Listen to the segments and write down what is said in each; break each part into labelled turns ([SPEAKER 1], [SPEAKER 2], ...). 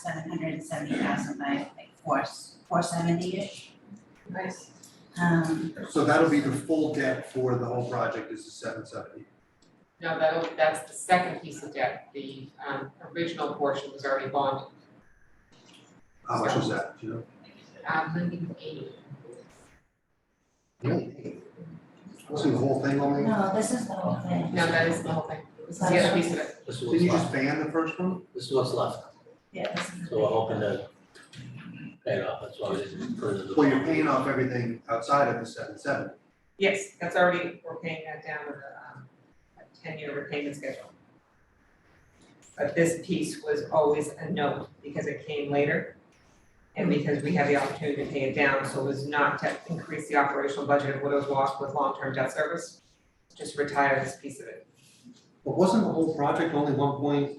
[SPEAKER 1] seven hundred and seventy thousand by like four, four seventy-ish.
[SPEAKER 2] Nice.
[SPEAKER 1] Um,
[SPEAKER 3] So that'll be the full debt for the whole project is the seven seventy.
[SPEAKER 2] No, that'll, that's the second piece of debt, the um original portion was already bonded,
[SPEAKER 3] How much was that, do you know?
[SPEAKER 2] um hundred eighty.
[SPEAKER 3] Wasn't the whole thing only,
[SPEAKER 1] no, this is the whole thing.
[SPEAKER 2] No, that is the whole thing, this is the other piece of it,
[SPEAKER 4] This is
[SPEAKER 3] didn't
[SPEAKER 4] what's
[SPEAKER 3] you just
[SPEAKER 4] left,
[SPEAKER 3] ban the first one?
[SPEAKER 4] this is what's left,
[SPEAKER 1] Yeah, this is the.
[SPEAKER 4] so we're hoping to pay it off, that's why we didn't further.
[SPEAKER 3] Well, you're paying off everything outside of the seven seventy.
[SPEAKER 2] yes, that's already, we're paying that down with a um a ten year repayment schedule. But this piece was always a note because it came later. And because we had the opportunity to pay it down, so it was not to increase the operational budget of Widows Walk with long-term debt service. Just retire this piece of it.
[SPEAKER 3] But wasn't the whole project only one point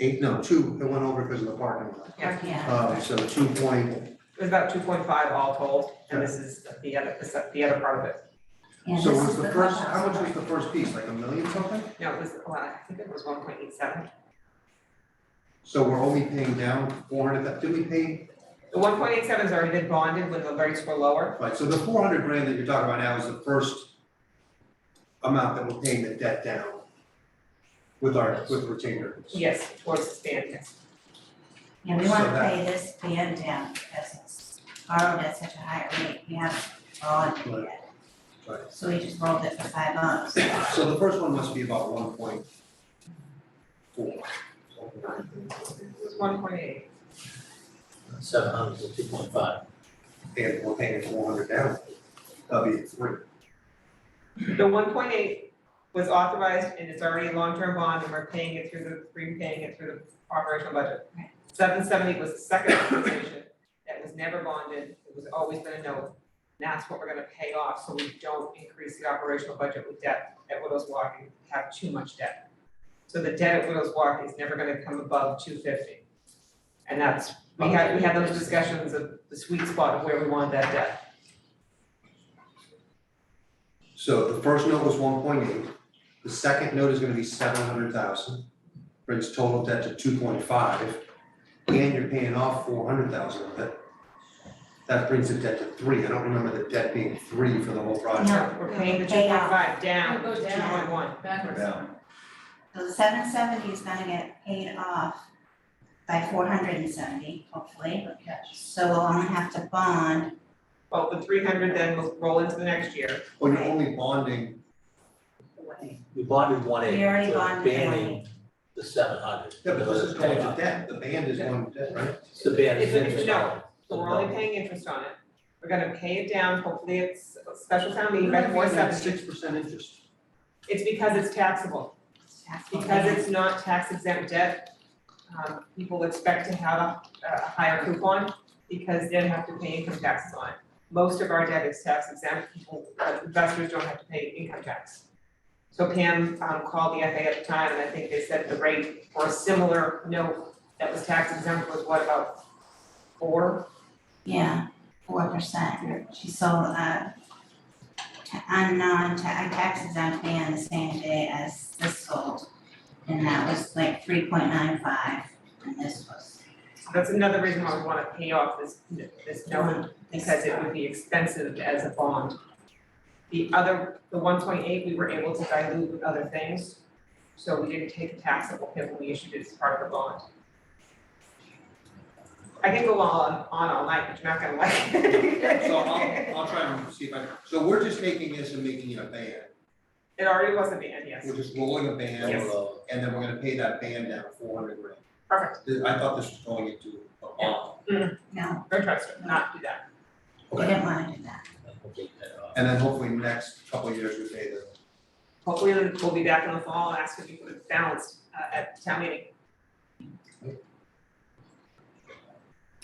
[SPEAKER 3] eight, no, two, it went over because of the parking lot.
[SPEAKER 2] Yeah.
[SPEAKER 1] Yeah,
[SPEAKER 3] Uh, so two point,
[SPEAKER 2] It was about two point five all told, and this is the other, this, the other part of it.
[SPEAKER 1] yeah,
[SPEAKER 3] so
[SPEAKER 1] this
[SPEAKER 3] was
[SPEAKER 1] is
[SPEAKER 3] the
[SPEAKER 1] the
[SPEAKER 3] first,
[SPEAKER 1] clubhouse
[SPEAKER 3] how much was
[SPEAKER 1] part.
[SPEAKER 3] the first piece, like a million something?
[SPEAKER 2] No, it was, well, I think it was one point eight seven.
[SPEAKER 3] So we're only paying down four hundred, did we pay,
[SPEAKER 2] The one point eight seven has already been bonded when the rates were lower.
[SPEAKER 3] right, so the four hundred grand that you're talking about now is the first amount that we're paying the debt down with our, with retainer.
[SPEAKER 2] Yes, towards the stand, yes.
[SPEAKER 1] Yeah, we
[SPEAKER 3] so
[SPEAKER 1] wanna
[SPEAKER 3] that-
[SPEAKER 1] pay this band down because it's borrowed at such a high rate, we haven't borrowed it yet.
[SPEAKER 3] Right.
[SPEAKER 1] So we just rolled it for five months.
[SPEAKER 3] So the first one must be about one point four.
[SPEAKER 2] It was one point eight.
[SPEAKER 4] Seven hundred to two point five,
[SPEAKER 3] And we're paying four hundred down, that'll be three.
[SPEAKER 2] The one point eight was authorized and it's already a long-term bond and we're paying it through the, repaying it through the operational budget.
[SPEAKER 1] Right.
[SPEAKER 2] Seven seventy was the second authorization that was never bonded, it was always been a note. And that's what we're gonna pay off, so we don't increase the operational budget with debt at Widows Walk and have too much debt. So the debt at Widows Walk is never gonna come above two fifty. And that's, we had, we had those discussions of the sweet spot of where we want that debt.
[SPEAKER 3] So the first note was one point eight, the second note is gonna be seven hundred thousand, brings total debt to two point five, and you're paying off four hundred thousand of it. That brings the debt to three, I don't remember the debt being three for the whole project.
[SPEAKER 1] No,
[SPEAKER 2] We're paying the two
[SPEAKER 1] pay
[SPEAKER 2] point
[SPEAKER 1] off.
[SPEAKER 2] five down
[SPEAKER 5] It'll
[SPEAKER 2] to
[SPEAKER 5] go
[SPEAKER 2] two
[SPEAKER 5] down.
[SPEAKER 2] point one.
[SPEAKER 5] backwards.
[SPEAKER 3] Yeah.
[SPEAKER 1] So the seven seventy is gonna get paid off by four hundred and seventy, hopefully. So we'll only have to bond,
[SPEAKER 2] Well, the three hundred then will roll into the next year.
[SPEAKER 3] Well, you're only bonding,
[SPEAKER 4] we bonded one eighty,
[SPEAKER 1] We already
[SPEAKER 4] so
[SPEAKER 1] bonded one
[SPEAKER 4] banning the seven hundred.
[SPEAKER 3] yeah, but this is going to debt, the band is going to debt, right?
[SPEAKER 4] It's the ban
[SPEAKER 2] It's
[SPEAKER 4] is
[SPEAKER 2] a-
[SPEAKER 4] interest
[SPEAKER 2] no.
[SPEAKER 4] on it.
[SPEAKER 2] So we're only paying interest on it. We're gonna pay it down, hopefully it's a special town meeting by four seventy.
[SPEAKER 3] Six percent interest.
[SPEAKER 2] It's because it's taxable,
[SPEAKER 1] tax will
[SPEAKER 2] because
[SPEAKER 1] be-
[SPEAKER 2] it's not tax exempt debt. Um, people expect to have a, a higher coupon because they don't have to pay income taxes on it. Most of our debt is tax exempt, people, uh, investors don't have to pay income tax. So Pam, um, called the FA at the time and I think they said the rate for a similar note that was tax exempt was what about four?
[SPEAKER 1] Yeah, four percent. She sold uh ta- a non-tax tax exempt band the same day as this sold. And that was like three point nine five and this was.
[SPEAKER 2] That's another reason why we wanna pay off this, this note,
[SPEAKER 1] this-
[SPEAKER 2] because it would be expensive as a bond. The other, the one point eight, we were able to dilute with other things, so we didn't take a taxable hit when we issued it as part of the bond. I can go on, on all night, but you're not gonna like it.
[SPEAKER 3] So I'll, I'll try and see if I, so we're just taking this and making it a band,
[SPEAKER 2] It already was a ban, yes,
[SPEAKER 3] we're just rolling a band.
[SPEAKER 2] Yes.
[SPEAKER 3] and then we're gonna pay that band down four hundred grand.
[SPEAKER 2] perfect,
[SPEAKER 3] Th- I thought this was going into a bond,
[SPEAKER 1] No,
[SPEAKER 2] no trust, not do that.
[SPEAKER 1] we didn't wanna do that.
[SPEAKER 4] Okay, pay it off.
[SPEAKER 3] and then hopefully next couple of years we pay the,
[SPEAKER 2] Hopefully, we'll be back in the fall and ask if we put it balanced, uh, at town meeting.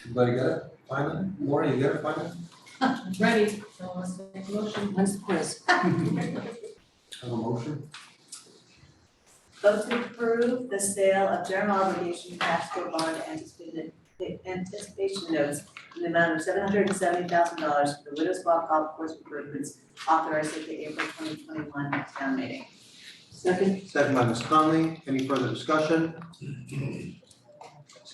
[SPEAKER 3] everybody got it, finally, Lori, you got it finally?
[SPEAKER 5] Ready, so let's make a motion. Let's press.
[SPEAKER 3] Have a motion?
[SPEAKER 6] Vote to approve the sale of general obligation cash flow bond anticipated anticipation notes in the amount of seven hundred and seventy thousand dollars for the Widows Walk Golf Course improvements authorized at the April twenty twenty one town meeting.
[SPEAKER 5] Second.
[SPEAKER 3] Second by Ms. Conley, any further discussion?